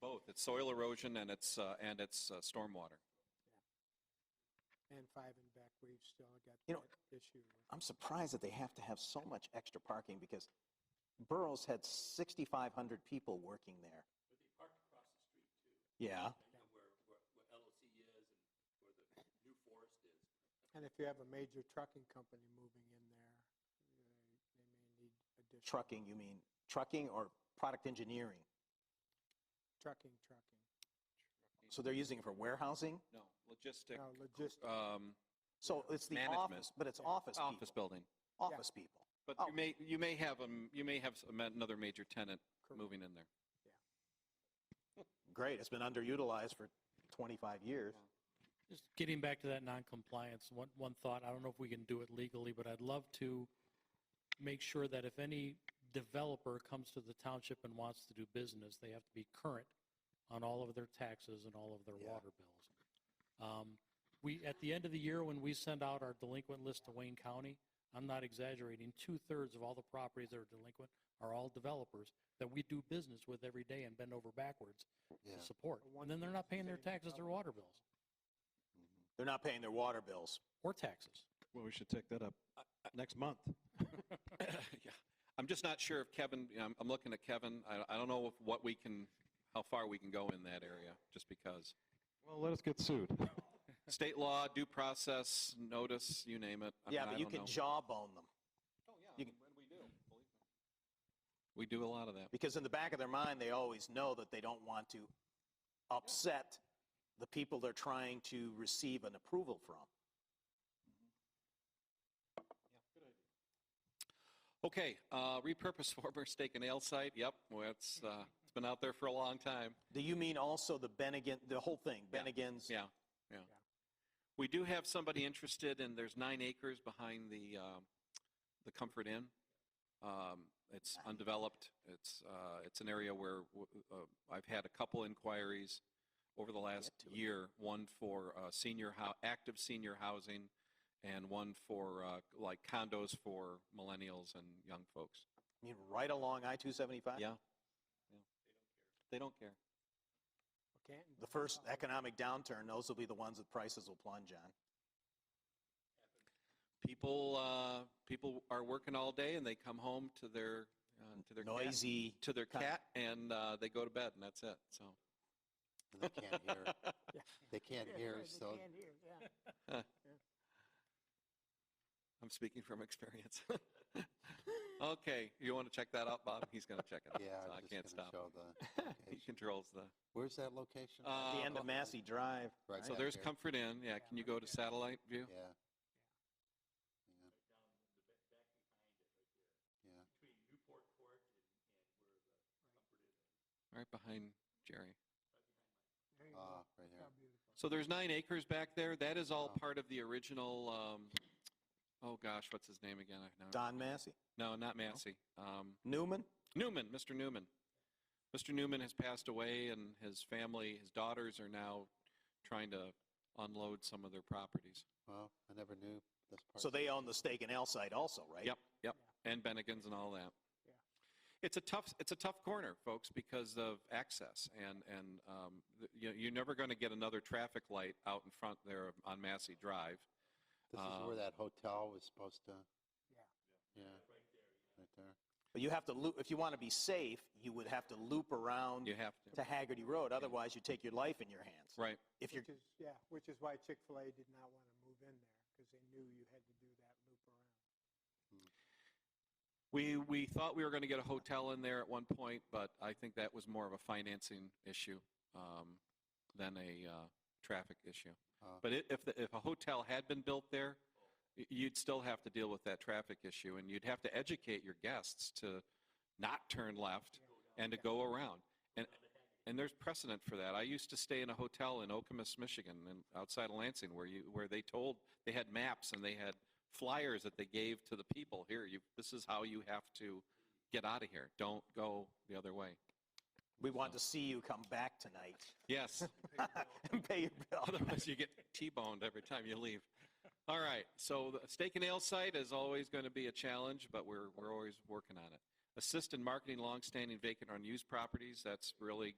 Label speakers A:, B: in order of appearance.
A: both. It's soil erosion and it's, uh, and it's uh, stormwater.
B: And five and back, we've still got
C: You know,
B: that issue.
C: I'm surprised that they have to have so much extra parking because Burroughs had 6,500 people working there. But they parked across the street too.
B: And if you have a major trucking company moving in there, uh, they may need
C: Yeah,
B: additional.
C: trucking, you mean trucking or product engineering?
B: Trucking, trucking.
C: So they're using it for warehousing?
A: No, logistic,
B: No, logistics.
C: Uh,
A: um,
C: So it's the
A: Management.
C: office, but it's
B: Yeah.
C: office
A: office
C: people.
A: building.
C: Office people.
A: But
C: Oh.
A: you may, you may have, um, you may have s- another major tenant
B: Correct.
A: moving in there.
C: Great, it's been underutilized for 25 years.
D: Just getting back to that non-compliance, one, one thought, I don't know if we can do it legally, but I'd love to make sure that if any developer comes to the township and wants to do business, they have to be current on all of their taxes and all of their
C: Yeah.
D: water bills. Um, We, at the end of the year, when we send out our delinquent list to Wayne County, I'm not exaggerating, two-thirds of all the properties that are delinquent are all developers that we do business with every day and bend over backwards
C: Yeah.
D: to support. And then they're not paying their taxes or water bills,
C: They're not paying their water bills.
D: or taxes.
E: Well, we should take that up next month.
A: Yeah, I'm just not sure if Kevin, you know, I'm, I'm looking at Kevin. I, I don't know if what we can, how far we can go in that area, just because.
E: Well, let us get sued.
A: State law, due process, notice, you name it. I
C: Yeah,
A: mean, I
C: but you
A: don't
C: can
A: know.
C: jawbone them you can-
A: we do. We do a lot of that.
C: because in the back of their mind, they always know that they don't want to upset the people they're trying to receive an approval from.
A: Okay, uh, repurpose former steak and ale site. Yep, well, it's, uh, it's been out there for a long time.
C: Do you mean also the Bennigan, the whole thing,
A: Yeah,
C: Bennigan's?
A: Yeah, yeah. We do have somebody interested, and there's nine acres behind the, um, the Comfort Inn. Um, It's
C: Nine.
A: undeveloped. It's, uh, it's an area where w- uh, I've had a couple inquiries over the last
C: to it.
A: year, one for uh, senior, hou- active senior housing, and one for uh, like condos for millennials and young folks.
C: You mean right along I-275?
A: Yeah. yeah. They don't care.
B: Canton.
C: The first economic downturn, those will be the ones that prices will plunge on.
A: People, uh, people are working all day and they come home to their, uh, to their cat,
C: Noisy,
A: to their
C: Cat.
A: cat and, uh, they go to bed and that's it. So
F: They can't hear. They can't
B: Yeah,
F: hear,
B: they
F: so
B: can't hear, yeah.
A: I'm speaking from experience. Okay, you want to check that out, Bob? He's going to check it out.
F: yeah,
A: so
F: I
A: I
F: was
A: can't
F: just gonna
A: stop.
F: show the
A: He
F: location.
A: controls the,
F: Where's that location?
A: Uh,
C: the end of Massey Drive.
F: Right
A: so
F: back
A: there's
F: here.
A: Comfort Inn. Yeah, can you go to satellite view?
F: Yeah. Yeah. Yeah.
A: Right behind Jerry.
B: There you
F: Ah,
B: go.
F: right
B: How
F: here.
B: beautiful.
A: So there's nine acres back there. That is all
F: Wow.
A: part of the original, um, oh gosh, what's his name again? I now-
C: Don Massey?
A: No, not Massey. Um,
C: Newman?
A: Newman, Mr. Newman. Mr. Newman has passed away, and his family, his daughters are now trying to unload some of their properties.
F: Well, I never knew this part.
C: So they own the steak and ale site also, right?
A: Yep, yep, and Bennigan's and all that.
B: Yeah.
A: It's a tough, it's a tough corner, folks, because of access, and, and um, th- you know, you're never going to get another traffic light out in front there on Massey Drive.
F: This is where
A: uh,
F: that hotel was supposed to.
B: Yeah.
F: Yeah. Right there.
C: But you have to loop, if you want to be safe, you would have to loop around
A: You have
C: to
A: to,
C: Haggerty Road. Otherwise, you take your life in your hands.
A: right,
C: If you're,
B: Which is, yeah, which is why Chick-fil-A did not want to move in there because they knew you had to do that loop around.
A: We, we thought we were going to get a hotel in there at one point, but I think that was more of a financing issue um, than a uh, traffic issue.
F: Oh.
A: But i- if, the- if a hotel had been built there, y- you'd still have to deal with that traffic issue, and you'd have to educate your guests to not turn left and to go around. And, and there's precedent for that. I used to stay in a hotel in Okemos, Michigan, and outside of Lansing, where you, where they told, they had maps and they had flyers that they gave to the people, here, you, this is how you have to get out of here. Don't go the other way.
C: we want to see you come back tonight
A: Yes,
C: and pay your bill.
A: otherwise you get T-boned every time you leave. All right, so the steak and ale site is always going to be a challenge, but we're, we're always working on it. Assist in marketing longstanding vacant or unused properties, that's really